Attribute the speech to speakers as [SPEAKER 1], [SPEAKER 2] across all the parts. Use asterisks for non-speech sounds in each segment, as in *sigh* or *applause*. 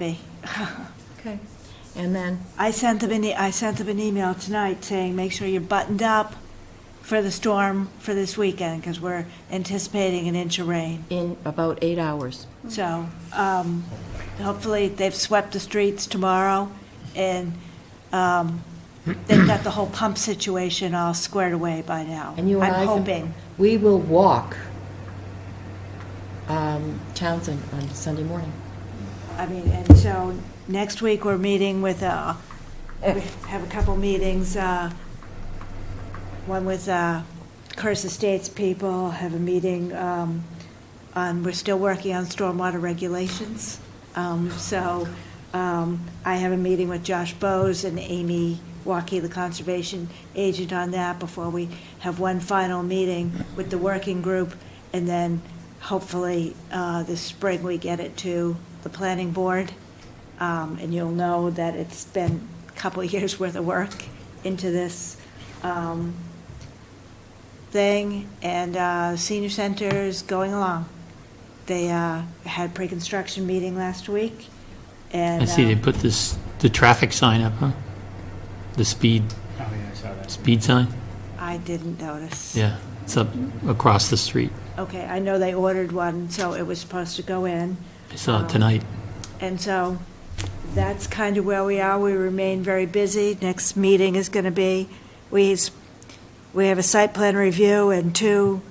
[SPEAKER 1] be.
[SPEAKER 2] Okay. And then,
[SPEAKER 1] I sent them an, e- I sent them an email tonight saying, make sure you're buttoned up for the storm for this weekend, because we're anticipating an inch of rain.
[SPEAKER 2] in about eight hours.
[SPEAKER 1] So, um, hopefully, they've swept the streets tomorrow, and, um, they've got the whole pump situation all squared away by now.
[SPEAKER 2] And you and I.
[SPEAKER 1] I'm
[SPEAKER 2] can-
[SPEAKER 1] hoping.
[SPEAKER 2] We will walk um, Townsend on Sunday morning.
[SPEAKER 1] I mean, and so, next week, we're meeting with, uh, we have a couple meetings, uh, one with, uh, Curse Estates people, have a meeting, um, on, we're still working on stormwater regulations. Um, so, um, I have a meeting with Josh Bose and Amy Waukee, the conservation agent on that, before we have one final meeting with the working group, and then hopefully, uh, this spring, we get it to the planning board. Um, and you'll know that it's been a couple *laughs* of years' worth of work into this um, thing, and uh, senior center's going along. They uh, had pre-construction meeting last week, and.
[SPEAKER 3] I see they
[SPEAKER 1] uh,
[SPEAKER 3] put this, the traffic sign up, huh? The speed,
[SPEAKER 4] Oh, yeah, I saw that.
[SPEAKER 3] speed sign?
[SPEAKER 1] I didn't notice.
[SPEAKER 3] Yeah, it's up across the street.
[SPEAKER 1] Okay, I know they ordered one, so it was supposed to go in.
[SPEAKER 3] I saw it tonight.
[SPEAKER 1] And so that's kind of where we are. We remain very busy. Next meeting is going to be, we, we have a site plan review and two,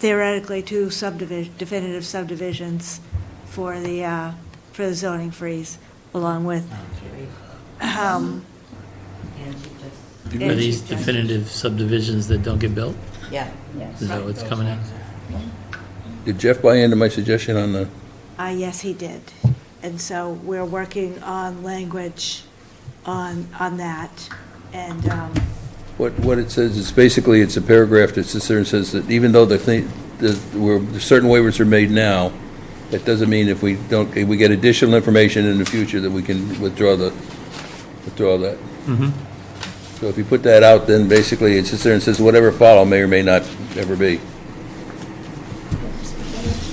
[SPEAKER 1] theoretically, two subdivision, definitive subdivisions for the, uh, for the zoning freeze, along with, um,
[SPEAKER 3] Are these definitive subdivisions that don't get built?
[SPEAKER 2] Yeah.
[SPEAKER 3] Is that what's coming out?
[SPEAKER 5] Did Jeff buy into my suggestion on the,
[SPEAKER 1] ah, yes, he did. And so we're working on language on, on that. And, um,
[SPEAKER 5] what, what it says, it's basically, it's a paragraph that sits there and says that even though the thing, the, where certain waivers are made now, that doesn't mean if we don't, if we get additional information in the future that we can withdraw the, withdraw that. So if you put that out, then basically it sits there and says whatever follow may or may not ever be.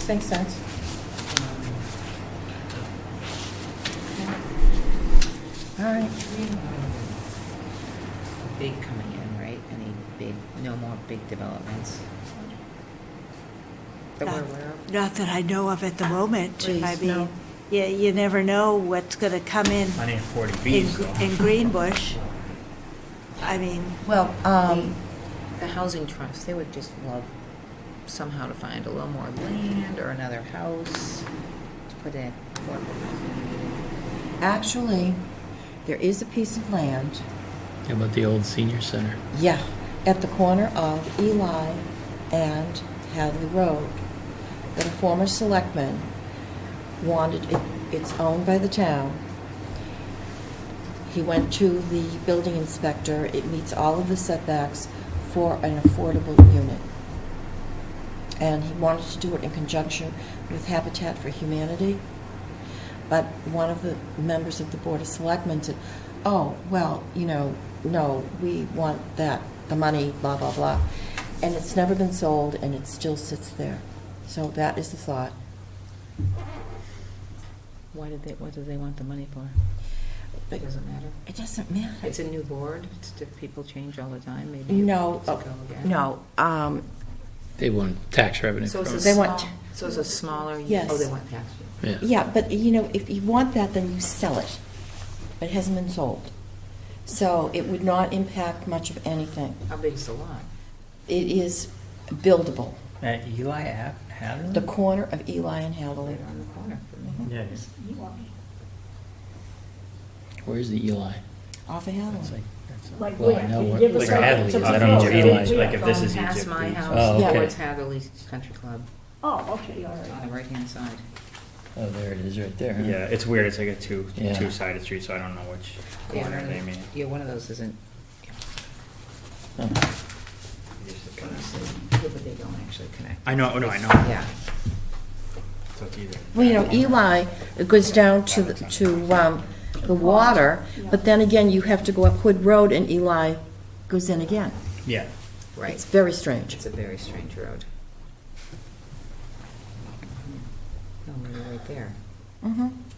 [SPEAKER 2] Makes sense. All right.
[SPEAKER 6] Big coming in, right? Any big, no more big developments? That we're aware of?
[SPEAKER 1] Not that I know of at the moment.
[SPEAKER 2] Please,
[SPEAKER 1] I
[SPEAKER 2] no.
[SPEAKER 1] mean, you, you never know what's gonna come in,
[SPEAKER 4] Money and forty
[SPEAKER 1] in,
[SPEAKER 4] Bs, though.
[SPEAKER 1] in Greenbush. I mean,
[SPEAKER 2] Well, um,
[SPEAKER 6] The housing trust, they would just love somehow to find a little more land or another house to put in.
[SPEAKER 2] actually, there is a piece of land,
[SPEAKER 3] How About the old senior center?
[SPEAKER 2] yeah, at the corner of Eli and Hadley Road, that a former selectman wanted, it- it's owned by the town. He went to the building inspector, it meets all of the setbacks for an affordable unit. And he wanted to do it in conjunction with Habitat for Humanity. But one of the members of the Board of Selectmen said, oh, well, you know, no, we want that, the money, blah, blah, blah. And it's never been sold, and it still sits there. So that is the thought.
[SPEAKER 6] Why did they, what do they want the money for?
[SPEAKER 2] But
[SPEAKER 6] It doesn't matter.
[SPEAKER 2] it doesn't matter.
[SPEAKER 6] It's a new board, it's, diff- people change all the time, maybe. it
[SPEAKER 2] No,
[SPEAKER 6] needs to
[SPEAKER 2] oh,
[SPEAKER 6] go again.
[SPEAKER 2] no, um,
[SPEAKER 3] They want tax revenue
[SPEAKER 6] So
[SPEAKER 3] from
[SPEAKER 6] it's a
[SPEAKER 3] it.
[SPEAKER 2] They want-
[SPEAKER 6] small, so it's a smaller,
[SPEAKER 2] Yes.
[SPEAKER 6] oh, they want tax.
[SPEAKER 3] Yeah.
[SPEAKER 2] yeah, but, you know, if you want that, then you sell it. But it hasn't been sold. So it would not impact much of anything.
[SPEAKER 6] How big is the lot?
[SPEAKER 2] It is buildable,
[SPEAKER 4] At Eli Ave, Hadley?
[SPEAKER 2] the corner of Eli and Hadley.
[SPEAKER 6] Right on the corner for me.
[SPEAKER 4] Yeah,
[SPEAKER 3] Where's the Eli?
[SPEAKER 2] Off of Hadley.
[SPEAKER 3] It's like-
[SPEAKER 7] Like,
[SPEAKER 3] Well,
[SPEAKER 7] wait,
[SPEAKER 3] I know
[SPEAKER 7] can you
[SPEAKER 3] what-
[SPEAKER 7] give
[SPEAKER 3] like
[SPEAKER 7] us some-
[SPEAKER 3] Hadley is,
[SPEAKER 7] some
[SPEAKER 3] I don't know what
[SPEAKER 7] feedback?
[SPEAKER 4] Eli is,
[SPEAKER 7] Yeah.
[SPEAKER 4] like if this is
[SPEAKER 6] Past
[SPEAKER 4] Egypt.
[SPEAKER 6] my
[SPEAKER 4] it's-
[SPEAKER 6] house,
[SPEAKER 3] Oh,
[SPEAKER 2] okay.
[SPEAKER 6] towards Hatherley Country Club,
[SPEAKER 7] Oh, okay, all
[SPEAKER 6] on
[SPEAKER 7] right.
[SPEAKER 6] the right-hand side.
[SPEAKER 3] Oh, there it is, right there. huh?
[SPEAKER 4] Yeah, it's weird, it's like a two,
[SPEAKER 3] Yeah.
[SPEAKER 4] two-sided street, so I don't know which
[SPEAKER 6] Yeah,
[SPEAKER 4] corner
[SPEAKER 6] one of
[SPEAKER 4] they
[SPEAKER 6] the-
[SPEAKER 4] mean.
[SPEAKER 6] Yeah, one of those isn't,
[SPEAKER 3] Huh.
[SPEAKER 6] yeah, but they don't actually connect.
[SPEAKER 4] I know, oh, no, I know.
[SPEAKER 6] Yeah.
[SPEAKER 4] So it's either.
[SPEAKER 2] Well, you know, Eli, it goes down to, the- to um, the water, but then again, you have to go up Hood Road and Eli goes in again.
[SPEAKER 4] Yeah.
[SPEAKER 2] It's
[SPEAKER 6] Right,
[SPEAKER 2] very strange.
[SPEAKER 6] it's a very strange road. No, we're right there.
[SPEAKER 2] Mhm.